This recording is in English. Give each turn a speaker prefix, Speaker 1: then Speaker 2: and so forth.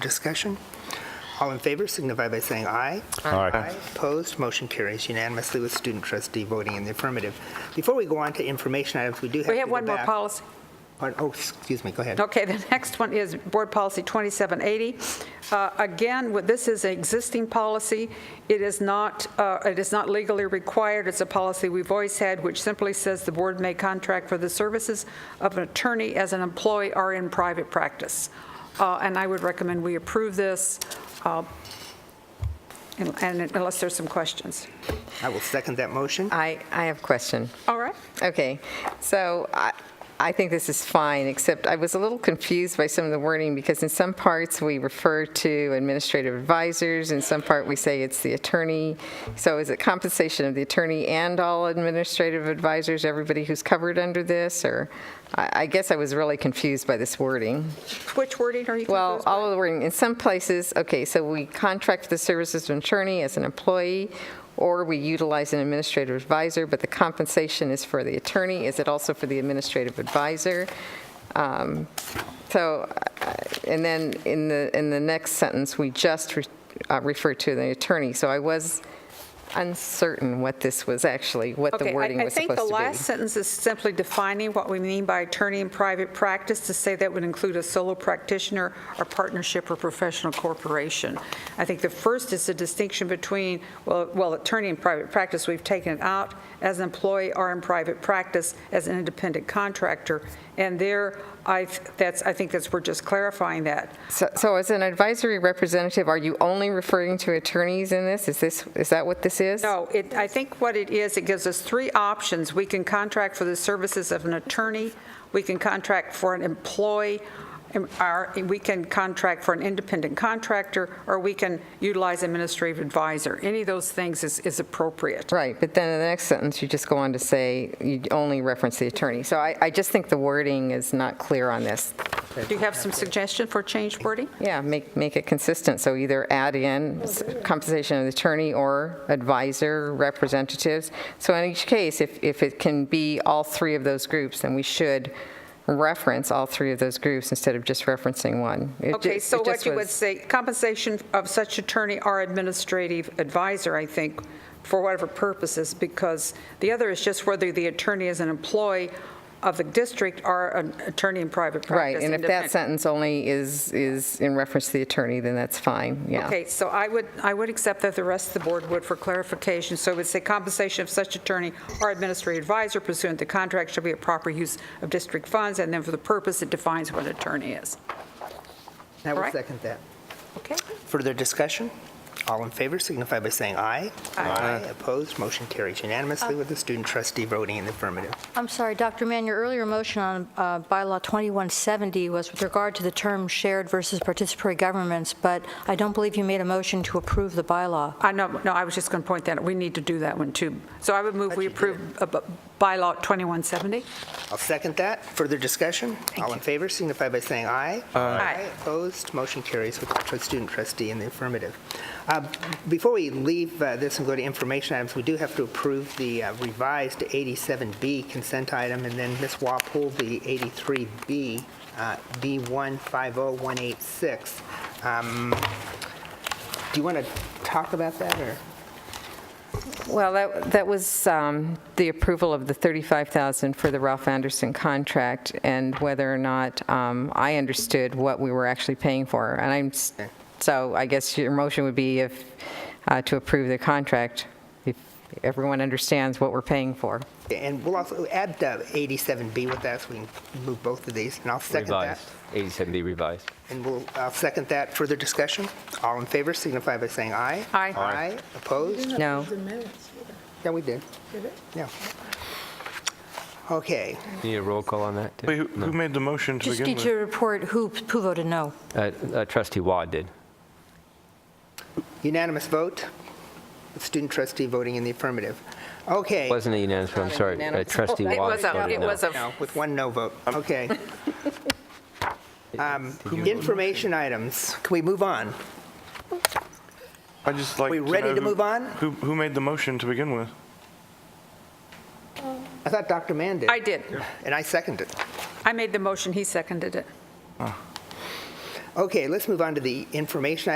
Speaker 1: Discussion? All in favor signify by saying aye.
Speaker 2: Aye.
Speaker 1: Opposed, motion carries unanimously with student trustee voting in the affirmative. Before we go on to information items, we do have to
Speaker 3: We have
Speaker 1: go
Speaker 3: one more
Speaker 1: back-
Speaker 3: policy.
Speaker 1: Pardon- Oh, excuse me, go ahead.
Speaker 3: Okay, the next one is Board Policy 2780. Uh, Again, what- this is an existing policy. It is not, uh, it is not legally required. It's a policy we've always had, which simply says the board may contract for the services of an attorney as an employee or in private practice. Uh, And I would recommend we approve this, uh, and and unless there's some questions.
Speaker 1: I will second that
Speaker 3: Uh,
Speaker 1: motion.
Speaker 4: I, I have a question.
Speaker 3: All right?
Speaker 4: Okay, so I, I think this is fine, except I was a little confused by some of the wording, because in some parts, we refer to administrative advisors, in some part, we say it's the attorney. So is it compensation of the attorney and all administrative advisors, everybody who's covered under this, or? I, I guess I was really confused by this wording.
Speaker 3: Which wording are you confused
Speaker 4: Well,
Speaker 3: by?
Speaker 4: all of the wording, in some places, okay, so we contract the services of an attorney as an employee, or we utilize an administrative advisor, but the compensation is for the attorney. Is it also for the administrative advisor? Um, So, uh, and then in the, in the next sentence, we just re- uh, refer to the attorney. So I was uncertain what this was actually, what
Speaker 3: Okay,
Speaker 4: the
Speaker 3: I-
Speaker 4: wording was supposed to
Speaker 3: I
Speaker 4: be.
Speaker 3: think the last sentence is simply defining what we mean by attorney in private practice, to say that would include a solo practitioner or partnership or professional corporation. I think the first is the distinction between, well, well, attorney in private practice, we've taken it out, as an employee or in private practice, as an independent contractor. And there, I, that's, I think that's, we're just clarifying that.
Speaker 4: So- So as an advisory representative, are you only referring to attorneys in this? Is this, is that what this is?
Speaker 3: No, Oh, it, I think what it is, it gives us three options. We can contract for the services of an attorney, we can contract for an employee, and our- we can contract for an independent contractor, or we can utilize administrative advisor. Any of those things is, is appropriate.
Speaker 4: Right, but then in the next sentence, you just go on to say, you only reference the attorney. So I, I just think the wording is not clear on this.
Speaker 3: Do you have some suggestion for change wording?
Speaker 4: Yeah, make, make it consistent, so either add in s- compensation of the attorney or advisor representatives. So in each case, if, if it can be all three of those groups, then we should reference all three of those groups instead of just referencing one. It ju-
Speaker 3: Okay, so
Speaker 4: it
Speaker 3: what
Speaker 4: just
Speaker 3: you would
Speaker 4: was-
Speaker 3: say, compensation of such attorney or administrative advisor, I think, for whatever purposes, because the other is just whether the attorney is an employee of the district or an attorney in private practice.
Speaker 4: Right, and if that
Speaker 3: independent.
Speaker 4: sentence only is, is in reference to the attorney, then that's fine, yeah.
Speaker 3: Okay, so I would, I would accept that the rest of the board would for clarification. So it would say compensation of such attorney or administrative advisor pursuant to contract shall be a proper use of district funds, and then for the purpose, it defines what attorney is.
Speaker 1: I will
Speaker 3: Correct.
Speaker 1: second that.
Speaker 3: Okay?
Speaker 1: Further discussion? All in favor signify by saying aye. Aye. Opposed, motion carries unanimously with the student trustee voting in the affirmative.
Speaker 5: I'm sorry, Dr. Mann, your earlier motion on uh, bylaw 2170 was with regard to the term shared versus participatory governments, but I don't believe you made a motion to approve the bylaw.
Speaker 3: I know, no, I was just going to point that, out. we need to do that one, too. So I would move we approve uh, b- bylaw 2170.
Speaker 1: I'll second that. Further discussion? All in favor signify by saying aye.
Speaker 3: Aye.
Speaker 1: Opposed, motion carries with the tr- student trustee in the affirmative. Uh, Before we leave uh, this and go to information items, we do have to approve the uh, revised 87B consent item, and then Ms. Wah pulled the 83B, uh, B150186. Um, Do you want to talk about that, or?
Speaker 4: Well, that, that was um, the approval of the 35,000 for the Ralph Anderson contract and whether or not um, I understood what we were actually paying for. And I'm, s- so I guess your motion would be if, uh, to approve the contract, if everyone understands what we're paying for.
Speaker 1: And we'll also add uh, 87B with that, so we can move both of these, and I'll second that.
Speaker 6: Revised, 87B revised.
Speaker 1: And we'll uh, second that. Further discussion? All in favor signify by saying aye.
Speaker 3: Aye. Aye.
Speaker 1: Aye. Opposed?
Speaker 4: No?
Speaker 1: Yeah, we did. Yeah. Okay.
Speaker 6: Need a roll call on that? too?
Speaker 2: Wait, who- who made the motion to
Speaker 5: Just
Speaker 2: begin
Speaker 5: need
Speaker 2: with?
Speaker 5: you to report who who voted no.
Speaker 6: Uh, uh, Trustee Wad did.
Speaker 1: Unanimous vote. Student trustee voting in the affirmative. Okay.
Speaker 6: Wasn't a unanimous, vote, I'm sorry. Uh,
Speaker 4: unanimous.
Speaker 6: Trustee
Speaker 3: It
Speaker 6: Wad
Speaker 3: was a,
Speaker 6: voted
Speaker 3: it was
Speaker 6: no.
Speaker 3: a,
Speaker 1: No, with one no vote. Okay. Um, Information items. Can we move on?
Speaker 2: I just like
Speaker 1: We
Speaker 2: to
Speaker 1: ready
Speaker 2: know
Speaker 1: to
Speaker 2: who-
Speaker 1: move on?
Speaker 2: Who, who made the motion to begin with?
Speaker 1: I thought Dr. Mann did.
Speaker 3: I did.
Speaker 1: And I seconded.
Speaker 3: I made the motion, he seconded it.
Speaker 1: Okay, let's move on to the information